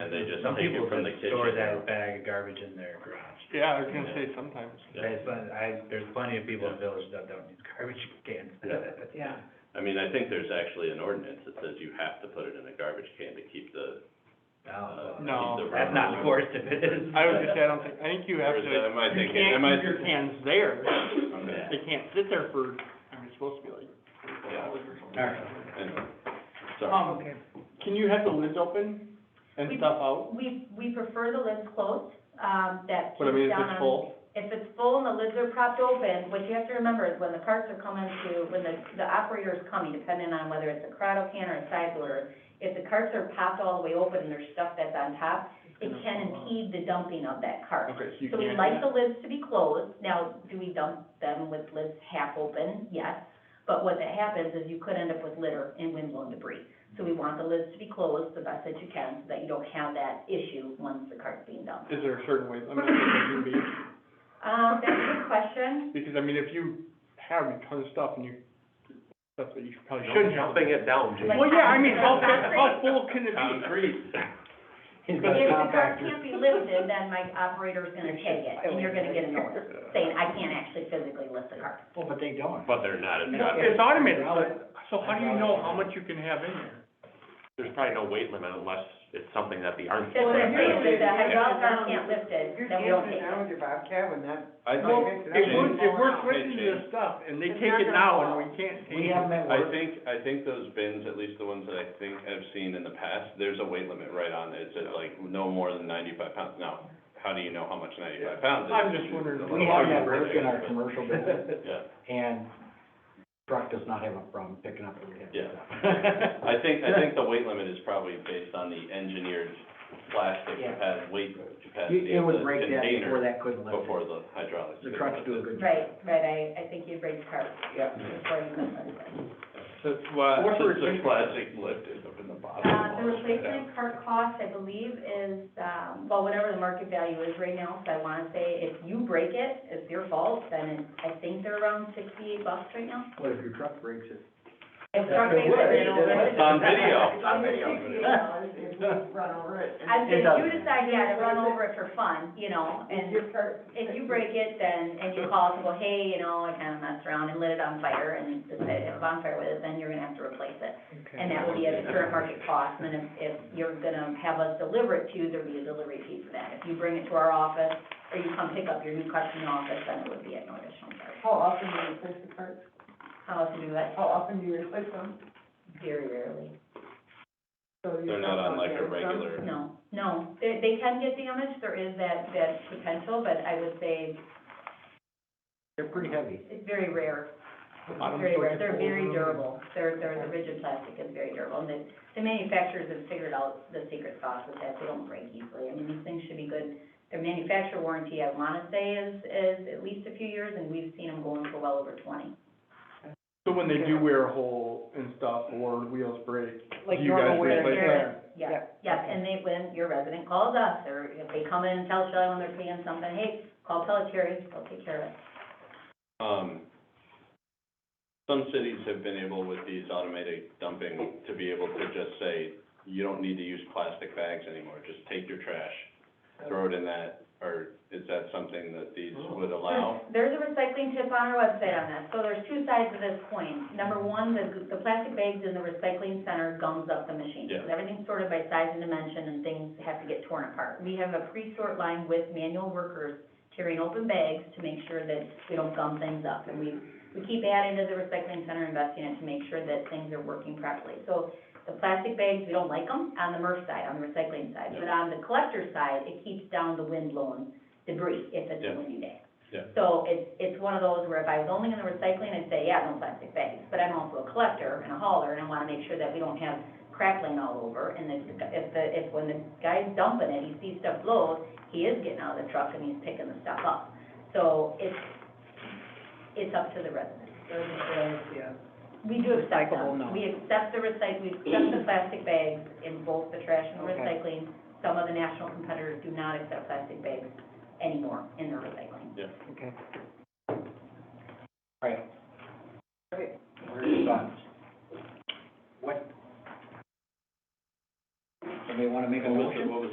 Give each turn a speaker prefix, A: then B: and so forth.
A: And they just
B: Some
A: take
B: people
A: it from the
B: just
A: kitchen.
B: store that bag of garbage in their garage.
C: Yeah, I was gonna say sometimes.
A: Yeah.
B: There's, plen- I, there's plenty of people in the village that don't use garbage cans.
A: Yeah.
D: yeah.
A: I mean, I think there's actually an ordinance that says you have to put it in a garbage can to keep the,
B: No,
A: uh,
E: Oh,
A: keep
C: No.
A: the.
B: that's not
A: vermin-
B: forced if it is.
C: I was gonna say, I don't think, I think you
A: Or
C: have to,
A: is that-
C: you
A: am I thinking, am I?
C: can't keep your cans there.
A: Okay.
C: They can't sit there for, I mean, it's supposed to be like four
A: Yeah.
C: hours or something.
B: Alright.
A: Anyway, sorry.
C: Um,
D: Okay.
C: can you have the lids open and
F: We-
C: stuff out?
F: We, we prefer the lids closed, um, that
C: But I mean, if
F: keeps down
C: it's
F: on.
C: full,
F: If it's full and the lids are propped open, what you have to remember is when the carts are coming to, when the, the operator is coming, depending on whether it's a Corrado can or a side loader, if the carts are popped all the way open and there's stuff that's on top, it
C: gonna
F: can
C: fall out.
F: impede the dumping of that cart.
C: okay, so you
F: So
C: can't.
F: we
C: do
F: like
C: that.
F: the lids to be closed, now, do we dump them with lids half open? Yes, but what that happens is you could end up with litter and windblown debris. So we want the lids to be closed the best that you can, so that you don't have that issue once the cart's being dumped.
C: Is there a certain way, I mean, it can be,
F: Um, that's a good question,
C: because I mean, if you have a ton of stuff and you, stuff that you probably shouldn't have.
B: it down,
F: Jake.
C: Well, yeah, I mean, how, how full can it be?
B: He's got
F: if
B: a
F: the cart
B: compactor.
F: can't be lifted, then my operator's gonna take it, and you're gonna get a notice saying, I can't actually physically lift the cart.
B: Well, but they don't.
A: But they're not, it's
C: Well, It's automated, but, so how do you know how much you can have in there?
G: There's probably no weight limit unless it's something that the arms.
F: That's what I'm saying, if the hydraulic
D: Yeah.
F: cart can't lift it,
D: If you're
F: then we don't take it.
D: camping down with your Bobcat, when that,
A: I think,
C: Well,
D: Okay.
C: if we're, if we're
D: Okay,
C: switching
A: Shane.
C: this stuff and they
D: It's
C: take
D: not
C: it
D: gonna
C: now
D: fall.
C: and we can't take it.
B: We have them at
A: I
B: work.
A: think, I think those bins, at least the ones that I think I've seen in the past, there's a weight limit right on it. It says like no more than ninety-five pounds. Now, how do you know how much ninety-five pounds is?
C: I'm just wondering.
A: The
E: We have that
A: larger
E: work in our
A: picture,
E: commercial business,
A: but- Yeah,
E: and truck does not have a problem picking up what we have.
A: yeah. I think, I think the weight limit is probably based on the engineered plastic
E: Yeah.
A: capacity, weight
E: You-
A: capacity
E: It
A: of the
E: would break that before
A: container
E: that couldn't lift
A: before the hydraulics.
E: it. The trucks do a good job.
F: Right, right, I, I think you'd raise carts
E: Yeah.
F: before you lift it.
A: So, well,
C: What's the
A: since the plastic
C: replacement?
A: lifted up in the bottom.
F: Uh, the
A: all this right
F: replacement cart cost, I believe, is, um, well, whatever the market value is right now, so I wanna say if you break it, it's your fault, then it- I think they're around sixty-eight bucks right now.
E: What if your truck breaks it?
F: If
E: Yeah,
F: truck
E: it
F: makes
E: would.
F: it, it'll-
A: It's on video.
D: it's on video. If we run over it.
F: I
E: It
F: think
E: does.
F: you decide, yeah, to run over it for fun, you know,
D: If
F: and
D: your cart-
F: if you break it, then, and you call us and go, hey, you know, I kinda messed around and lit it on fire and decided to have a bonfire with it, then you're gonna have to replace it. And that will be at the current market cost, and if, if you're gonna have us deliver it to you, there'll be a delivery fee for that. If you bring it to our office, or you come pick up your new customer in the office, then it would be at no additional charge.
D: How often do you replace the carts?
F: How else do we do that?
D: How often do you replace them?
F: Very rarely.
D: So you-
A: They're not on like a
D: Yeah, some-
A: regular,
F: No, no, they, they can get damaged, there is that, that potential, but I would say
E: They're pretty heavy.
F: it's very rare.
C: The bottom
F: Very
C: sort
F: rare,
C: of
F: they're
C: folds
F: very
C: around.
F: durable, they're, they're, the rigid plastic is very durable, and the, the manufacturers have figured out the secret sauce with that, they don't break easily, I mean, these things should be good. Their manufacturer warranty, I wanna say, is, is at least a few years, and we've seen them going for well over twenty.
C: So when they do wear a hole and stuff or wheels break, do
D: Like
C: you guys
D: normal wear.
C: replace that?
F: Yeah, yeah, and they, when your resident calls us, or if they come in and tell Shelley when they're paying something, hey, call Pelletary, they'll take care of it.
A: um, some cities have been able with these automated dumping to be able to just say, you don't need to use plastic bags anymore, just take your trash, throw it in that, or is that something that these would allow?
F: There's a recycling tip on our website on this, so there's two sides of this coin. Number one, the, the plastic bags in the recycling center gums up the machine.
A: Yeah.
F: Everything's sorted by size and dimension, and things have to get torn apart. We have a pre-sort line with manual workers tearing open bags to make sure that we don't gum things up. And we, we keep adding to the recycling center, investing in it to make sure that things are working properly. So the plastic bags, we don't like them on the MRF side, on the recycling side. But on the collector side, it keeps down the wind blowing debris if it's
A: Yeah.
F: a windy day.
A: Yeah.
F: So it's, it's one of those where if I was only in the recycling, I'd say, yeah, no plastic bags. But I'm also a collector and a hauler, and I wanna make sure that we don't have crackling all over. And if, the- if the, if when the guy's dumping it, he sees stuff blow, he is getting out of the truck and he's picking the stuff up. So it's, it's up to the resident.
D: Those are the, yeah.
F: We do accept
E: Recyclable, no.
F: them. We accept the recyc, we accept the plastic bags in both the trash and the
D: Okay.
F: recycling. Some of the national competitors do not accept plastic bags anymore in their recycling.
E: Okay. All right. Where's your thoughts? What? Somebody wanna make a
A: What was the-
E: motion?
A: what was